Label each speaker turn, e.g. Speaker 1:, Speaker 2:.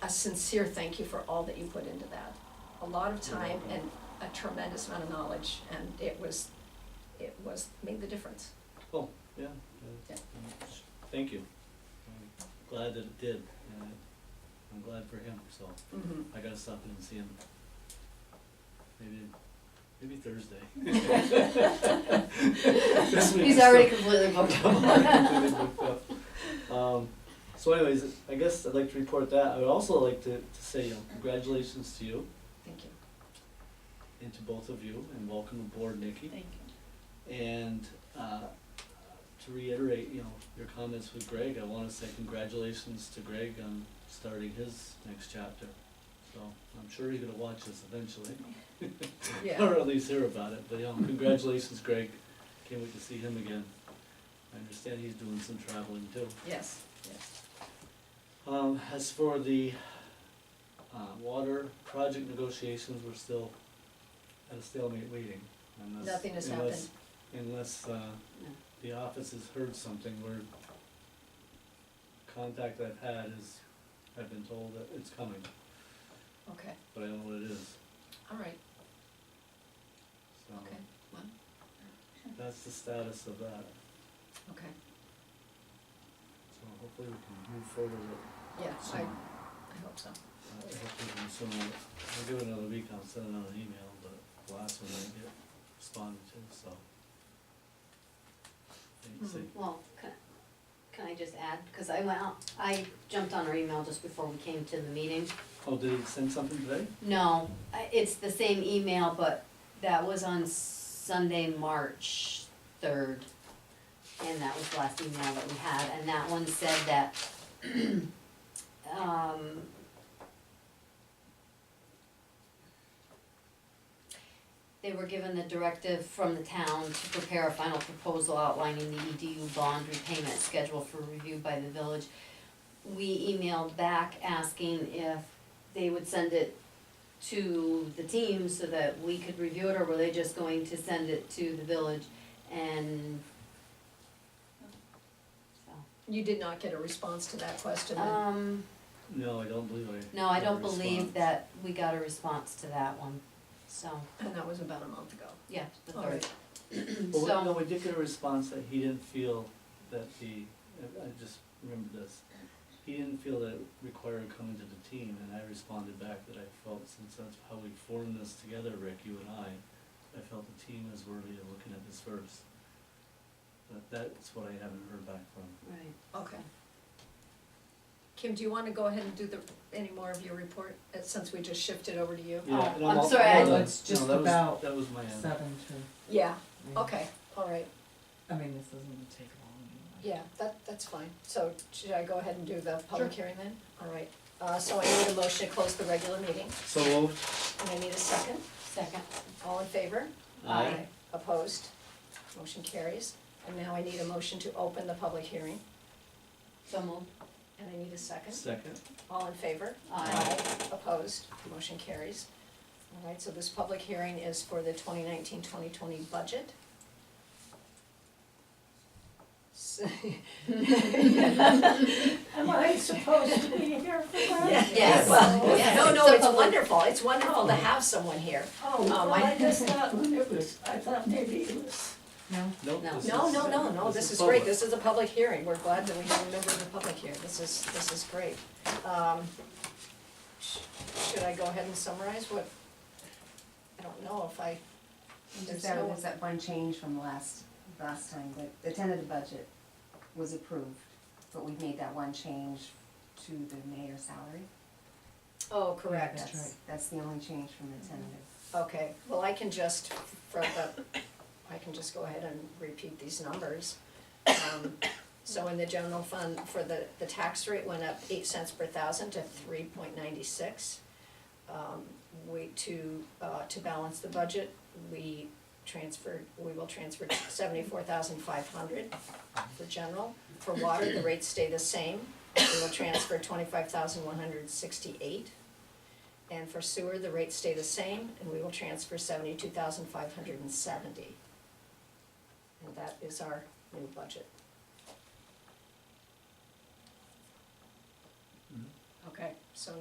Speaker 1: a sincere thank you for all that you put into that. A lot of time and a tremendous amount of knowledge, and it was, it was, made the difference.
Speaker 2: Cool, yeah.
Speaker 1: Yeah.
Speaker 2: Thank you. I'm Glad that it did, and I'm glad for him, so
Speaker 1: Mhm.
Speaker 2: I gotta stop in and see him. Maybe, maybe Thursday. This week
Speaker 3: He's
Speaker 2: is
Speaker 3: already
Speaker 2: so-
Speaker 3: completely booked
Speaker 2: I'm
Speaker 3: up.
Speaker 2: already completely booked up. Um, so anyways, I guess I'd like to report that. I would also like to, to say, you know, congratulations to you
Speaker 1: Thank you.
Speaker 2: and to both of you, and welcome aboard, Nikki.
Speaker 3: Thank
Speaker 2: And uh, to reiterate, you know, your comments with Greg, I want to say congratulations to Greg on starting his next chapter. So I'm sure he's gonna watch this eventually,
Speaker 1: Yeah,
Speaker 2: or at least hear about it. But you know, congratulations, Greg. Can't wait to see him again. I understand he's doing some traveling too.
Speaker 1: yes, yes.
Speaker 2: Um, as for the, uh, water project negotiations, we're still at a stalemate waiting. unless-
Speaker 1: Nothing has
Speaker 2: unless-
Speaker 1: happened.
Speaker 2: Unless, uh,
Speaker 3: No.
Speaker 2: the office has heard something, where contact I've had is, I've been told that it's coming,
Speaker 1: Okay,
Speaker 2: but I don't know what it is,
Speaker 1: all right,
Speaker 2: so.
Speaker 1: Okay, well.
Speaker 2: That's the status of that,
Speaker 1: okay,
Speaker 2: so hopefully we can move forward with it
Speaker 1: yeah, I,
Speaker 2: soon.
Speaker 1: I hope so.
Speaker 2: Uh, hopefully soon, I'll give it another week, I'll send another email, but the last one I didn't get responded to, so. And see,
Speaker 3: Well, can, can I just add, cause I went out, I jumped on her email just before we came to the meeting.
Speaker 2: oh, did he send something today?
Speaker 3: No, I- it's the same email, but that was on Sunday, March third. And that was the last email that we had, and that one said that, um. They were given the directive from the town to prepare a final proposal outlining the EDU bond repayment schedule for review by the village. We emailed back asking if they would send it to the team so that we could review it, or were they just going to send it to the village and? so,
Speaker 1: You did not get a response to that question, then?
Speaker 3: Um,
Speaker 2: No, I don't believe I.
Speaker 3: no, I
Speaker 2: got a
Speaker 3: don't believe
Speaker 2: response.
Speaker 3: that we got a response to that one, so,
Speaker 1: and that was about a month ago.
Speaker 3: yeah, the
Speaker 1: All right.
Speaker 3: third,
Speaker 2: Well, wait, no,
Speaker 3: so,
Speaker 2: we did get a response that he didn't feel that the, I I just remembered this. He didn't feel that it required coming to the team, and I responded back that I felt, since that's how we formed this together, Rick, you and I, I felt the team is worthy of looking at this first. But that's what I haven't heard back from.
Speaker 3: right,
Speaker 1: Okay. Kim, do you wanna go ahead and do the, any more of your report, uh, since we just shifted over to you?
Speaker 3: Oh,
Speaker 2: Yeah, and
Speaker 3: I'm
Speaker 2: all-
Speaker 3: sorry,
Speaker 2: all
Speaker 3: I-
Speaker 2: done.
Speaker 4: Well, it's
Speaker 2: No,
Speaker 4: just
Speaker 2: that was-
Speaker 4: about
Speaker 2: That was my end.
Speaker 4: Seven to,
Speaker 1: Yeah,
Speaker 4: yeah.
Speaker 1: okay, all right,
Speaker 4: I mean, this doesn't take long. anyway.
Speaker 1: yeah, that, that's fine. So should I go ahead and do the public hearing then? All right, uh, so I need a motion to close the regular meeting,
Speaker 2: So moved.
Speaker 1: and I need a second,
Speaker 3: second,
Speaker 1: all in favor?
Speaker 3: Aye.
Speaker 1: Opposed? Motion carries, and now I need a motion to open the public hearing,
Speaker 3: so moved,
Speaker 1: and I need a second,
Speaker 2: Second.
Speaker 1: all in favor?
Speaker 3: aye,
Speaker 1: Opposed, motion carries. All right, so this public hearing is for the 2019-2020 budget. So-
Speaker 5: Am I supposed to be here for that?
Speaker 3: Yes.
Speaker 1: Well,
Speaker 3: Yes.
Speaker 1: No, no,
Speaker 3: So
Speaker 1: it's
Speaker 3: public-
Speaker 1: wonderful, it's wonderful to have someone here.
Speaker 5: Oh,
Speaker 1: Um,
Speaker 5: well,
Speaker 1: I-
Speaker 5: I just thought it was, I thought maybe it was,
Speaker 4: No?
Speaker 2: Nope,
Speaker 3: No.
Speaker 2: this
Speaker 1: No,
Speaker 2: is-
Speaker 1: no, no, no, this is
Speaker 2: public.
Speaker 1: great, this is a public hearing, we're glad that we have a member of the public here, this is, this is great. Um, sh- Should I go ahead and summarize what, I don't know if I,
Speaker 6: And
Speaker 1: There's
Speaker 6: Just that
Speaker 1: no-
Speaker 6: was that one change from last, last time, that the tentative budget was approved, but we made that one change to the mayor's salary.
Speaker 1: oh, correct.
Speaker 4: That's right.
Speaker 6: That's the only change from the tentative.
Speaker 1: Okay, well, I can just, from the, I can just go ahead and repeat these numbers. Um, So in the general fund, for the, the tax rate went up eight cents per thousand to three point ninety-six. Um, We, to, uh, to balance the budget, we transferred, we will transfer seventy-four thousand five hundred for general. For water, the rates stay the same, we will transfer twenty-five thousand one hundred sixty-eight. And for sewer, the rates stay the same, and we will transfer seventy-two thousand five hundred and seventy. And that is our new budget.
Speaker 2: Mhm.
Speaker 1: Okay, so